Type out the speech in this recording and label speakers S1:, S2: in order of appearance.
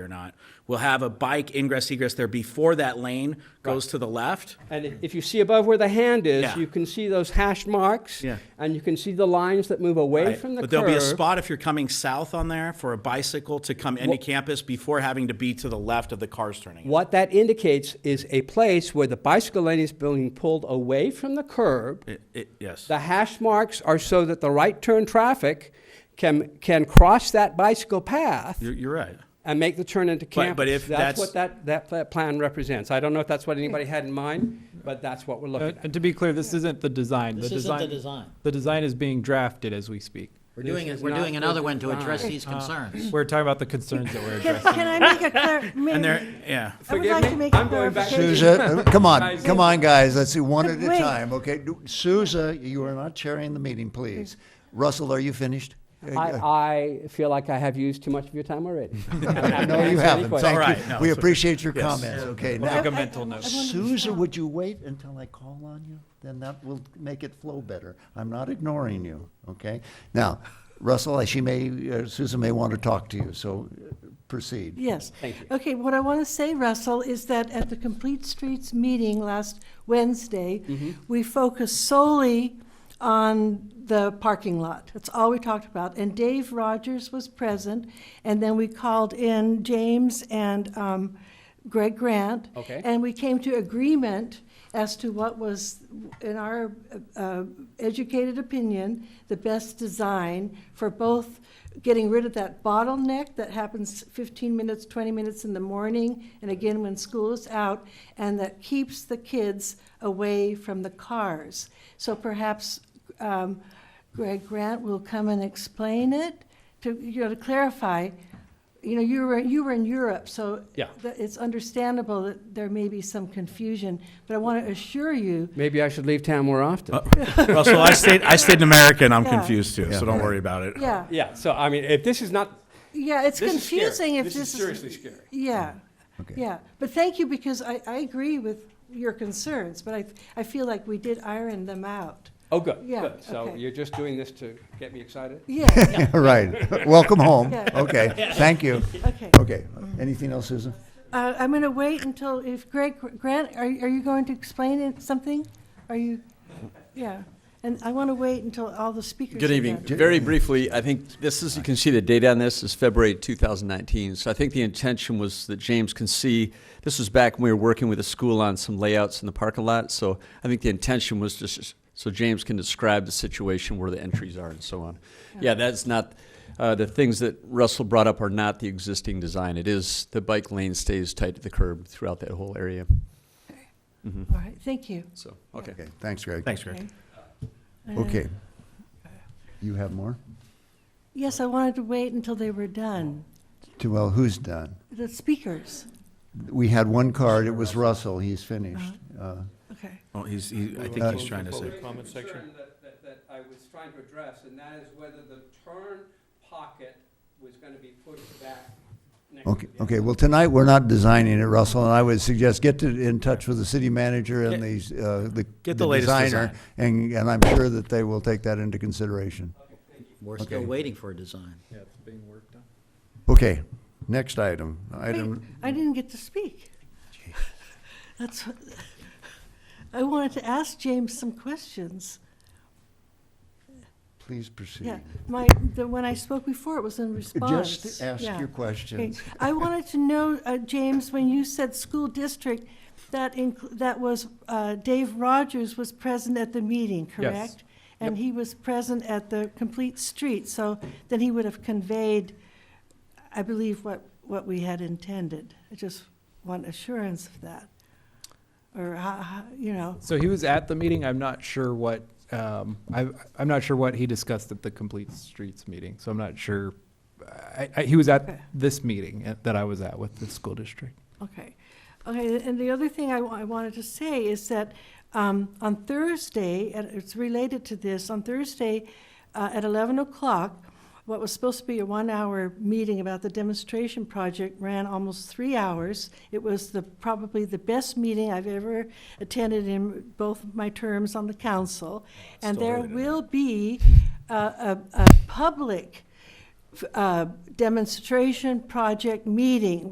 S1: or not. We'll have a bike ingress egress there before that lane goes to the left.
S2: And i- if you see above where the hand
S1: Yeah.
S2: is, you can see those hash marks.
S1: Yeah.
S2: And you can see the lines that move away from the curve.
S1: But there'll be a spot if you're coming south on there for a bicycle to come into campus before having to be to the left of the cars turning. in.
S2: What that indicates is a place where the bicycle lane is being pulled away from the curb.
S1: It- it- Yes.
S2: The hash marks are so that the right turn traffic can, can cross that bicycle path
S1: You're, you're right.
S2: and make the turn into
S1: But-
S2: campus.
S1: but if that's-
S2: what that, that pla- plan represents. I don't know if that's what anybody had in mind, but that's what we're
S3: Uh,
S2: looking at.
S3: And to be clear, this isn't the design.
S4: This isn't the design.
S3: The design is being drafted as we speak.
S4: We're doing,
S2: This
S4: it.
S2: is
S4: we're
S2: not
S4: doing
S2: the
S4: another one to address
S2: design.
S4: these concerns.
S3: We're talking about the concerns that we're
S5: Can,
S3: addressing.
S5: can I make a clar- may-
S1: And there, yeah.
S5: I would
S2: Forgive
S5: like
S2: me,
S5: to make a
S2: I'm going back to-
S5: clarification.
S6: Souza, uh, come on,
S3: Guys.
S6: come on, guys, let's do one
S5: But
S6: at a
S5: wait.
S6: time, okay? Do- Souza, you are not chairing the meeting, please. Russell, are you finished? Uh, uh,
S2: I, I feel like I have used too much of your time already. I'm happy to
S6: No,
S2: answer any
S6: you haven't,
S2: questions.
S1: All
S6: thank
S1: right,
S6: you.
S1: no,
S6: We
S1: it's okay.
S6: appreciate your
S1: Yes.
S6: comments, okay?
S3: We'll make
S6: Now,
S3: a mental note.
S6: Souza, would you wait until I call on you? Then that will make it flow better. I'm not ignoring you, okay? Now, Russell, she may, uh, Souza may want to talk to you, so uh, proceed.
S5: Yes. Okay, what I want to say, Russell, is that at the Complete Streets meeting last Wednesday,
S2: Mm-hmm.
S5: we focused solely on the parking lot. That's all we talked about. And Dave Rogers was present, and then we called in James and um, Greg Grant.
S2: Okay.
S5: And we came to agreement as to what was, in our uh, educated opinion, the best design for both getting rid of that bottleneck that happens 15 minutes, 20 minutes in the morning, and again when school is out, and that keeps the kids away from the cars. So perhaps um, Greg Grant will come and explain it to, you know, to clarify. You know, you were, you were in Europe, so
S2: Yeah.
S5: that it's understandable that there may be some confusion, but I want to assure you.
S2: Maybe I should leave town more often.
S6: Uh,
S1: Russell, I stayed, I stayed in America and I'm
S5: Yeah.
S1: confused too, so don't worry about it.
S5: Yeah,
S2: Yeah, so I mean, if this is not,
S5: yeah, it's
S2: This is scary.
S5: confusing if
S2: This
S5: this
S2: is
S5: is.
S2: seriously scary.
S5: Yeah, yeah. But thank you, because I, I agree with your concerns, but I, I feel like we did iron them out.
S2: oh, good,
S5: Yeah,
S2: good. So
S5: okay.
S2: you're just doing this to get me excited?
S5: Yeah,
S6: Right, welcome home,
S5: Yeah.
S6: okay, thank you.
S5: okay.
S6: Okay, anything else, Susan?
S5: Uh, I'm going to wait until, if Greg, Grant, are, are you going to explain it, something? Are you, yeah. And I want to wait until all the speakers.
S7: Good
S5: are
S7: evening.
S5: done.
S7: Very briefly, I think this is, you can see the date on this is February 2019. So I think the intention was that James can see, this was back when we were working with the school on some layouts in the parking lot. So I think the intention was just, so James can describe the situation where the entries are and so on. Yeah, that's not, uh, the things that Russell brought up are not the existing design. It is, the bike lane stays tight to the curb throughout that whole area.
S5: All right, thank you.
S7: So, okay.
S6: Okay, thanks, Greg.
S1: Thanks, Greg.
S6: Okay. You have more?
S5: Yes, I wanted to wait until they were done,
S6: To, well, who's done?
S5: the speakers.
S6: We had one card, it was Russell, he's finished.
S1: Uh-huh.
S6: Uh,
S5: Okay.
S1: Well, he's, he- I think he's trying to say.
S2: Comment section. That, that I was trying to address, and that is whether the turn pocket was gonna be pushed back next to
S6: Okay,
S2: the
S6: okay, well, tonight, we're not designing it, Russell, and I would suggest get to- in touch with the city manager and the, uh, the
S1: Get
S6: the
S1: the latest
S6: designer,
S1: design.
S6: and, and I'm sure that they will take that into consideration.
S4: We're still
S6: Okay.
S4: waiting for a design.
S3: Yeah, it's being worked on.
S6: Okay, next item,
S5: Wait,
S6: item,
S5: I didn't get to speak. That's, what- I wanted to ask James some questions.
S6: please proceed.
S5: Yeah, my, the, when I spoke before, it was in response.
S6: Just ask
S5: Yeah.
S6: your
S5: Okay.
S6: questions.
S5: I wanted to know, uh, James, when you said school district, that, inclu- that was, uh, Dave Rogers was present at the meeting, correct? And he was present at the complete street, so then he would have conveyed, I believe, what, what we had intended. I just want assurance of that. Or, how- how- you know,
S3: So he was at the meeting. I'm not sure what, um, I, I'm not sure what he discussed at the Complete Streets meeting. So I'm not sure. I, I, he was at this meeting at- that I was at with the school district.
S5: Okay. Okay, and the other thing I, wa- I wanted to say is that um, on Thursday, and it's related to this, on Thursday uh, at 11 o'clock, what was supposed to be a one-hour meeting about the demonstration project ran almost three hours. It was the, probably the best meeting I've ever attended in both my terms on the council. And there will be uh, a, a public f- uh, demonstration project meeting